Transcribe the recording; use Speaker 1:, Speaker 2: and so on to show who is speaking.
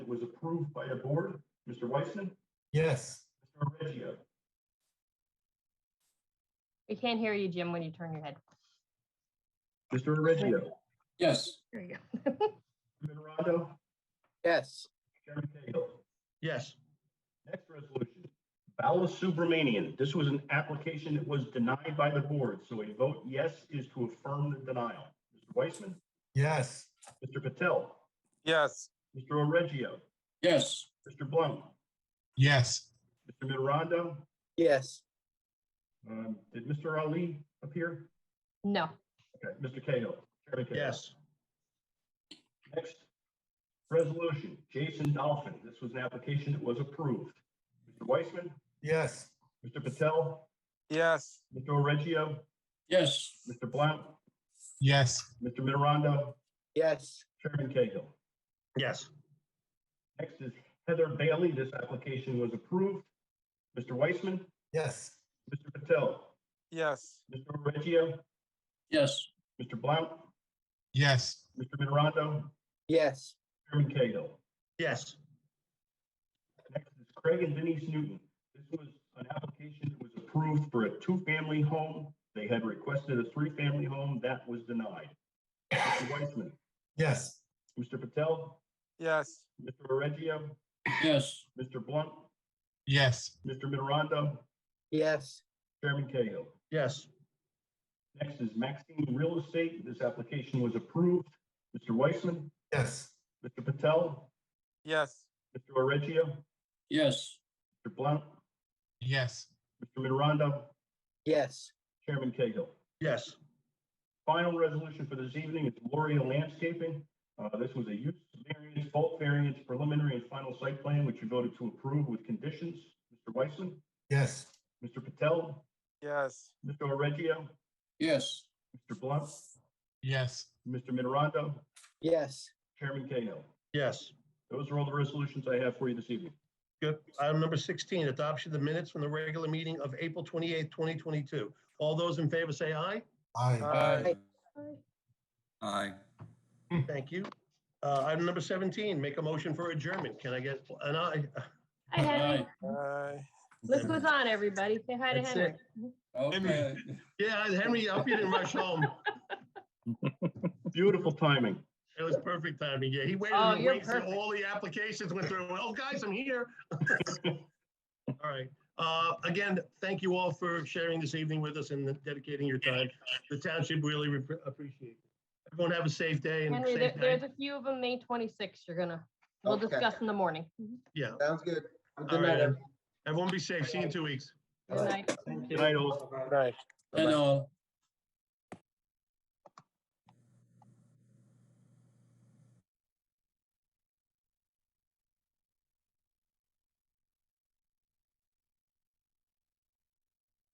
Speaker 1: was approved by the board. Mr. Weissman,
Speaker 2: Yes.
Speaker 1: Mr. Reggio,
Speaker 3: We can't hear you, Jim, when you turn your head.
Speaker 1: Mr. Reggio,
Speaker 4: Yes.
Speaker 3: There you go.
Speaker 1: Chairman Rondo,
Speaker 5: yes,
Speaker 1: Chairman Cahill.
Speaker 6: yes,
Speaker 1: Next resolution, Bala Subramanian. This was an application that was denied by the board, so a vote yes is to affirm the denial. Mr. Weissman,
Speaker 2: Yes.
Speaker 1: Mr. Patel,
Speaker 7: yes,
Speaker 1: Mr. Oreggio,
Speaker 4: Yes.
Speaker 1: Mr. Blount,
Speaker 2: Yes.
Speaker 1: Mr. Mitterondo.
Speaker 5: yes,
Speaker 1: Um, Did Mr. Ali appear?
Speaker 3: No,
Speaker 1: Okay, Mr. Cahill. Chairman Cahill.
Speaker 6: yes,
Speaker 1: Next resolution, Jason Dolphin. This was an application that was approved. Mr. Weissman,
Speaker 2: Yes.
Speaker 1: Mr. Patel,
Speaker 7: yes,
Speaker 1: Mr. Oreggio,
Speaker 4: Yes.
Speaker 1: Mr. Blount,
Speaker 2: Yes.
Speaker 1: Mr. Mitterondo,
Speaker 5: yes,
Speaker 1: Chairman Cahill.
Speaker 6: yes,
Speaker 1: Next is Heather Bailey. This application was approved. Mr. Weissman,
Speaker 2: Yes.
Speaker 1: Mr. Patel,
Speaker 7: yes,
Speaker 1: Mr. Reggio,
Speaker 4: Yes.
Speaker 1: Mr. Blount,
Speaker 2: Yes.
Speaker 1: Mr. Mitterondo,
Speaker 5: yes,
Speaker 1: Chairman Cahill.
Speaker 6: yes,
Speaker 1: Next is Craig and Denise Newton. This was an application that was approved for a two-family home. They had requested a three-family home. That was denied. Mr. Weissman,
Speaker 2: Yes.
Speaker 1: Mr. Patel,
Speaker 7: yes,
Speaker 1: Mr. Reggio,
Speaker 4: Yes.
Speaker 1: Mr. Blunt,
Speaker 2: Yes.
Speaker 1: Mr. Mitterondo,
Speaker 5: yes,
Speaker 1: Chairman Cahill.
Speaker 6: yes,
Speaker 1: Next is Maxine Real Estate. This application was approved. Mr. Weissman,
Speaker 2: Yes.
Speaker 1: Mr. Patel,
Speaker 7: yes,
Speaker 1: Mr. Oreggio,
Speaker 4: Yes.
Speaker 1: Mr. Blount,
Speaker 2: Yes.
Speaker 1: Mr. Mitterondo,
Speaker 5: yes,
Speaker 1: Chairman Cahill.
Speaker 6: yes,
Speaker 1: Final resolution for this evening is Gloria Landscaping. Uh, This was a use variance, bulk variance, preliminary and final site plan, which you voted to approve with conditions. Mr. Weissman,
Speaker 2: Yes.
Speaker 1: Mr. Patel,
Speaker 7: yes,
Speaker 1: Mr. Oreggio,
Speaker 4: Yes.
Speaker 1: Mr. Blount,
Speaker 2: Yes.
Speaker 1: Mr. Mitterondo,
Speaker 5: yes.
Speaker 1: Chairman Cahill.
Speaker 6: yes.
Speaker 1: Those are all the resolutions I have for you this evening.
Speaker 6: Good. Item number 16, adoption of the minutes from the regular meeting of April 28th, 2022. All those in favor say aye.
Speaker 2: Aye.
Speaker 4: Aye. Aye.
Speaker 6: Thank you. Uh, Item number 17, make a motion for adjournment. Can I get an aye?
Speaker 3: hi Henry.
Speaker 7: aye.
Speaker 3: This was on, everybody. Say hi to
Speaker 6: That's
Speaker 3: Henry.
Speaker 4: Okay.
Speaker 6: Yeah, Henry, I hope you didn't rush home.
Speaker 1: Beautiful timing.
Speaker 6: It was perfect timing. Yeah, he waited,
Speaker 3: Oh,
Speaker 6: and
Speaker 3: you're
Speaker 6: waited till
Speaker 3: perfect.
Speaker 6: all the applications went through. Oh, guys, I'm here. All right. Uh, again, thank you all for sharing this evening with us and dedicating your time. The township really re- appreciate it. Everyone have a safe day and
Speaker 3: Henry, there-
Speaker 6: safe night.
Speaker 3: there's a few of them, May 26th, you're gonna, we'll
Speaker 5: Okay.
Speaker 3: discuss in the morning. Mhm.
Speaker 6: Yeah.
Speaker 5: Sounds good. Have a
Speaker 6: All
Speaker 5: Good
Speaker 6: right.
Speaker 5: night.
Speaker 6: Everyone be safe. See you in two weeks.
Speaker 3: Good night.
Speaker 1: Good night, all.
Speaker 7: Right.
Speaker 4: And uh, all.